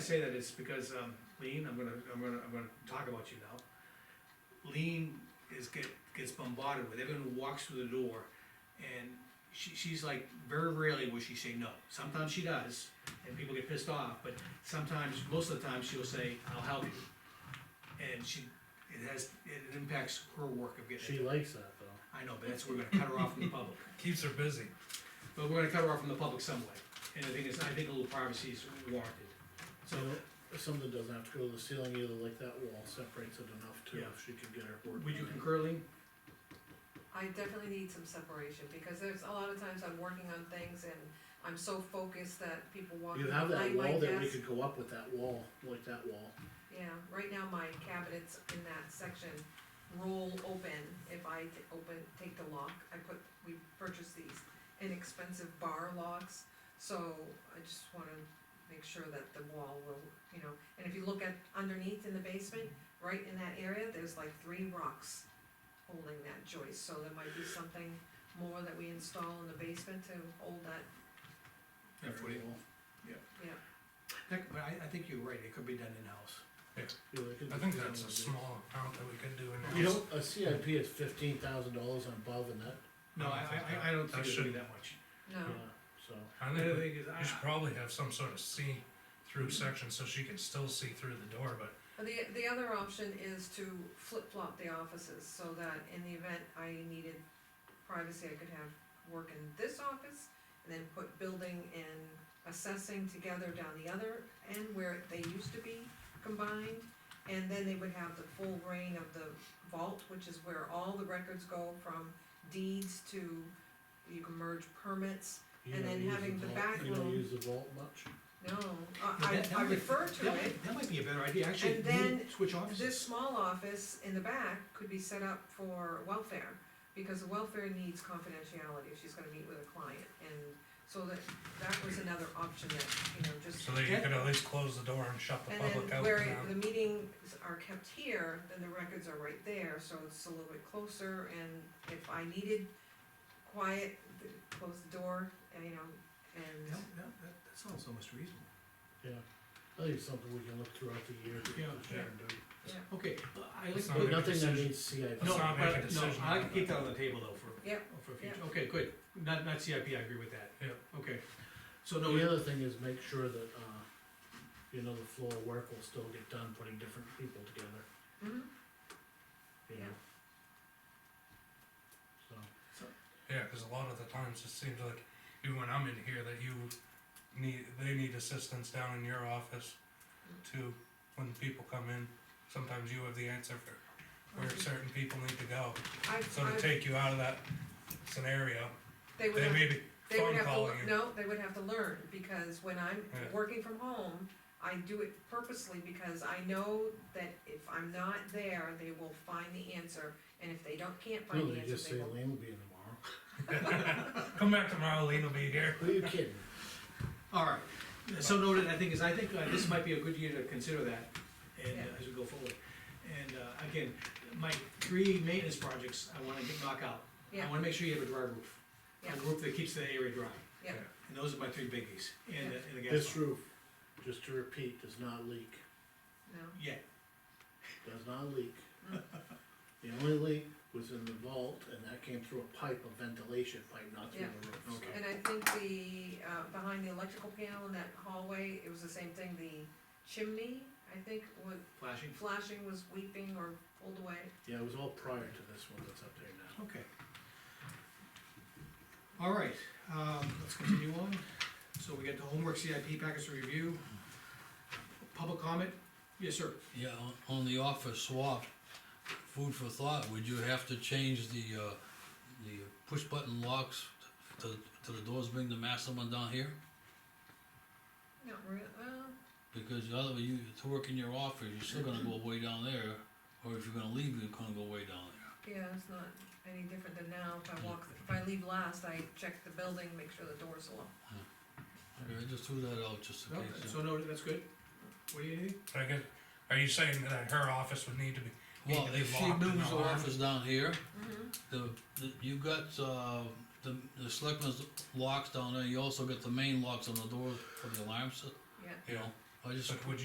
I say that is because, um, Lean, I'm gonna, I'm gonna, I'm gonna talk about you now. Lean is get, gets bombarded with, everyone who walks through the door, and she, she's like, very rarely will she say no. Sometimes she does, and people get pissed off, but sometimes, most of the time, she'll say, I'll help you. And she, it has, it impacts her work of getting She it. done. likes that though. I know, but that's, we're gonna cut her off from the public. Keeps her busy. But we're gonna cut her off from the public some way, and the thing is, I think a little privacy is warranted. So something doesn't have to go to the ceiling either, like that wall separates it enough too, Yeah. if she could get her board. Would you done. concur, Lean? I definitely need some separation, because there's a lot of times I'm working on things and I'm so focused that people walk You in have that behind my wall that we desk. could go up with that wall, like that wall. Yeah, right now my cabinets in that section roll open, if I t- open, take the lock, I put, we purchased these inexpensive bar locks, so I just wanna make sure that the wall will, you know, and if you look at underneath in the basement, right in that area, there's like three rocks holding that joist, so there might be something more that we install in the basement to hold that, Yeah, for you. wall. yeah. Heck, but I, I think you're right, it could be done in-house. Yeah, they could I do think that that's a one day. small amount that we could do You in house. know, a CIP is fifteen thousand dollars on above and that, No, I, I, I- I don't think it would That be shouldn't- that much. No, yeah, so. I The think other we thing uh, is, ah, we should I, probably have some sort of see-through section so she can still see through the door, but Well, The, the other option is to flip-flop the offices, so that in the event I needed privacy, I could have work in this office, and then put building and assessing together down the other end where they used to be combined, and then they would have the full reign of the vault, which is where all the records go from deeds to, you can merge permits, you And don't then use having the vault- back You don't room. use the vault much? no, Yeah, I, that- I I that would- refer to that, it. might- that might be a better idea, actually, And then move- switch This offices. small office in the back could be set up for welfare, because welfare needs confidentiality if she's gonna meet with a client, and so that, that was another option that, you know, just. so that you Yeah. could at least close the door and shut the And public then out. where now. the meetings are kept here, then the records are right there, so it's a little bit closer, and if I needed quiet, th- close the door, and, you know, That, and, that, that- that sounds almost reasonable. Yeah, I think it's something we can look throughout the year. to- Yeah. to and do. Okay, well, I like, It's the- not no, a- Nothing that decision. needs CIP. Let's not but, make a no, decision I like on to keep that. that on the table though for, Yep, for future, yep. okay, good, not, not CIP, I agree with that. Yep. Okay, so no, The other thing is make sure that, uh, you know, the floor work will still get done, putting different people together, mhm, you Yeah. know? So, Yeah, cause a lot of the times it seems like, even when I'm in here, that you need, they need assistance down in your office too, when people come in. Sometimes you have the answer for where certain people need to go, I, so to I, take you out of that scenario, they would they have may be They would phone have to, calling lear- you. no, they would have to learn, because when I'm Yeah. working from home, I do it purposely because I know that if I'm not there, they will find the answer, and if they don't, can't find no, the they just answer, say they will. Elaine will be in tomorrow. Come back tomorrow, Lean will be here. Who are you kidding? alright, so noted, I think is, I think uh, this might be a good year to consider that, and, uh, Yeah. as we go forward. And, uh, again, my three maintenance projects I wanna get knock out, I Yeah, wanna make sure you have a dry roof. yeah, a roof that keeps the area dry. yeah, And those are my three biggies, and, the- and the gas. This pump. roof, just to repeat, does not leak, no, Yeah, does not leak. Hmm. The only leak was in the vault, and that came through a pipe, a ventilation pipe, not through Yeah. the roof. so- Okay. and I think the, uh, behind the electrical panel in that hallway, it was the same thing, the chimney, I think, was flashing, flashing, was weeping or pulled away. Yeah, it was all prior to this one that's up there now. okay. All right, um, let's continue on. So we got the homework CIP package to review. Public comment? Yes, sir. Yeah, on- on the office swap, food for thought, would you have to change the, uh, the push button locks to, to the doors, bring the master one down here? Not real, well, Because the other, you, to work in your office, you're still gonna go way down there, or if you're gonna leave, you're gonna go way down there. yeah, it's not any different than now, if I walk, if I leave last, I check the building, make sure the door's locked. Okay, I just threw that out just in No, case. uh, so no, that's good. What do you need? I guess, are you saying that her office would need to be, need Well, to be if she locked and moves the alarmed? office down here, Mm-hmm. the, the, you got, uh, the, the selectmen's locks down there, you also got the main locks on the door for the alarm, so, Yeah, Yeah, you know, I just But would